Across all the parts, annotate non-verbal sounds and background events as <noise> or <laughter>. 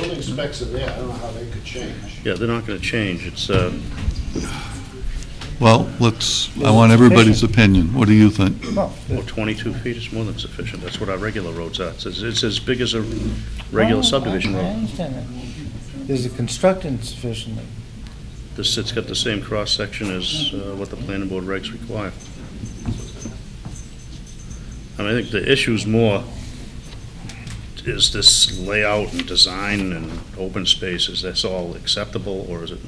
building specs are there, I don't know how they could change. Yeah, they're not going to change. It's, uh, Well, let's, I Well, want it's everybody's opinion. What do you think? Well, well, 22 oh, feet is more than sufficient. That's what our regular roads are. It's, it's as big as a regular Oh, subdivision I- I road. understand that. Is it constructed sufficiently? This, it's got the same cross-section as uh, what the planning board regs require. I mean, I think the issue's more, is this layout and design and open space, is this all acceptable, or is it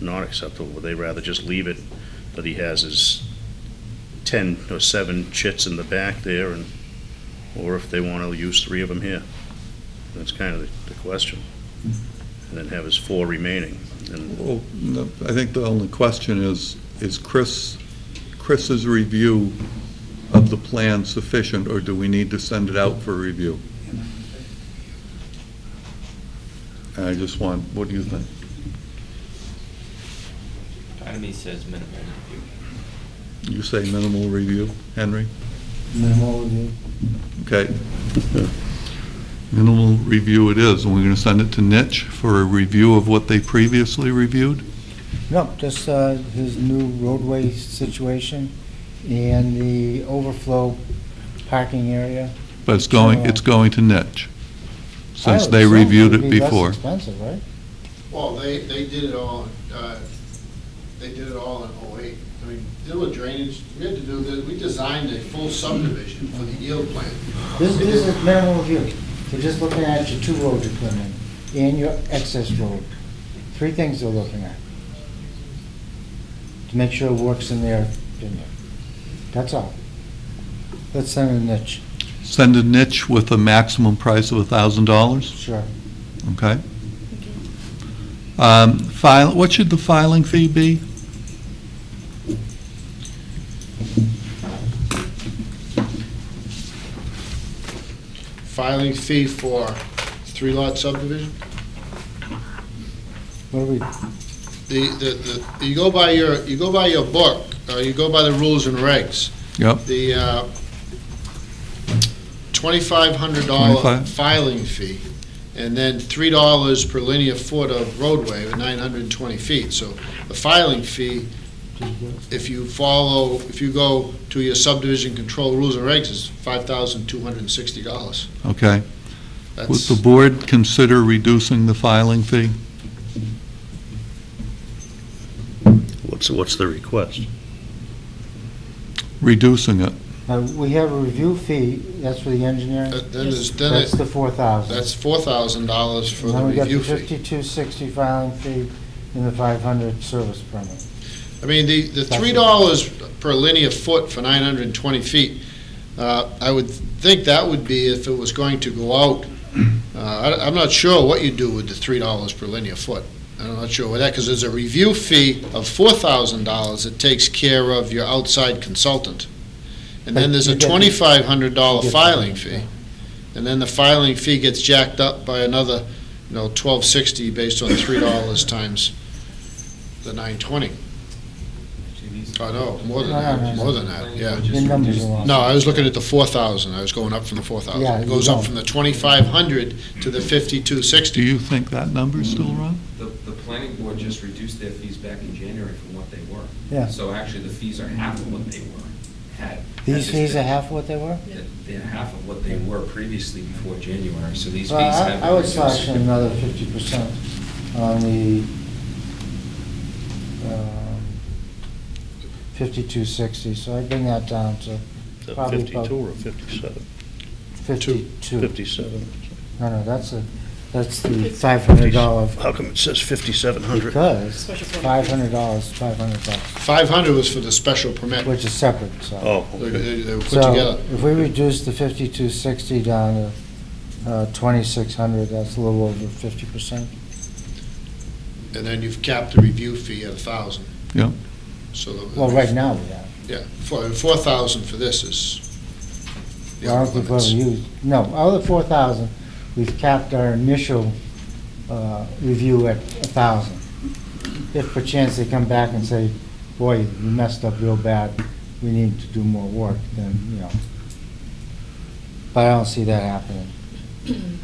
not acceptable? Would they rather just leave it, that he has his ten or seven chits in the back there, and, or if they want to use three of them here? That's kind of the- the question. And then have his four remaining, and Well, no, I think the only question is, is Chris, Chris's review of the plan sufficient, or do we need to send it out for review? And I just want, what do you think? Part of me says minimal review. You say minimal review, Henry? Minimal review? Okay. Minimal review it is, and we're going to send it to Nitch for a review of what they previously reviewed? No, just uh, his new roadway situation and the overflow parking area. But it's going, it's going to Nitch, since they I would assume reviewed would it be less before. expensive, right? Well, they, they did it all, uh, they did it all in '08. I mean, deal with drainage, we had to do this, we designed a full subdivision for the yield plan. This this is minimal review. They're just looking at your two roads you're putting in and your excess road. Three things they're looking at. To make sure it works in their opinion. That's all. Let's send a niche, Send a niche with a maximum price of $1,000, sure. okay? Um, File, what should the filing fee be? Filing fee for three lot subdivision? What are we, The, the, the, you go by your, you go by your book, uh, you go by the rules and regs. Yep, The, uh, twenty-five hundred dollar Twenty-five? filing fee, and then three dollars per linear foot of roadway, or nine hundred and twenty feet. So the filing fee, if you follow, if you go to your subdivision control rules and regs, is five thousand two hundred and sixty dollars. okay. Would That's, the board consider reducing the filing fee? What's, what's the request? Reducing it, uh, we have a review fee, that's for the engineering. that- then is, Uh, then That's it, the four thousand. that's four thousand dollars for the Then we got the review fee. fifty-two sixty filing fee and the five hundred service permit. I mean, the, the three dollars per linear foot for nine hundred and twenty feet, uh, I would think that would be if it was going to go <clears throat> out. Uh, I, I'm not sure what you do with the three dollars per linear foot. I'm not sure with that, because there's a review fee of four thousand dollars that takes care of your outside consultant. And then there's a But you get- twenty-five hundred dollar Yes, filing yeah. fee. And then the filing fee gets jacked up by another, you know, twelve sixty based on three dollars times the nine twenty. Oh, no, more than that, more than that, yeah. The numbers are wrong. No, I was looking at the four thousand, I was going up from the four thousand. Yeah, It you goes up don't. from the twenty-five hundred to the fifty-two do sixty. you think that number's still wrong? The, the planning board just reduced their fees back in January from what they were. Yeah. So actually, the fees are half of what they were, had. had These this fees are been- half what they were? They're half of what they were previously before January, so these fees have. Well, I- I been would reduced. slash in another fifty percent on the um, fifty-two sixty, so I'd bring that down to Is that Probably about- 52 or 57? fifty-two. 57. No, no, that's a, that's the five hundred dollar, How come it says 5,700? because five hundred dollars, five hundred bucks, Five hundred was for the special permit, which is separate, so. Oh, they, okay. they- they were put So together. if we reduce the fifty-two sixty down to uh, twenty-six hundred, that's a little over fifty percent. And then you've capped the review fee at a thousand. Yeah. So. the- Well, right now we have. Yeah, four, four thousand for this is. the I don't upper think we've ever limits. used, no, out of the four thousand, we've capped our initial uh, review at a thousand. If perchance they come back and say, boy, you messed up real bad, we need to do more work, then, you know. But I don't see that happening.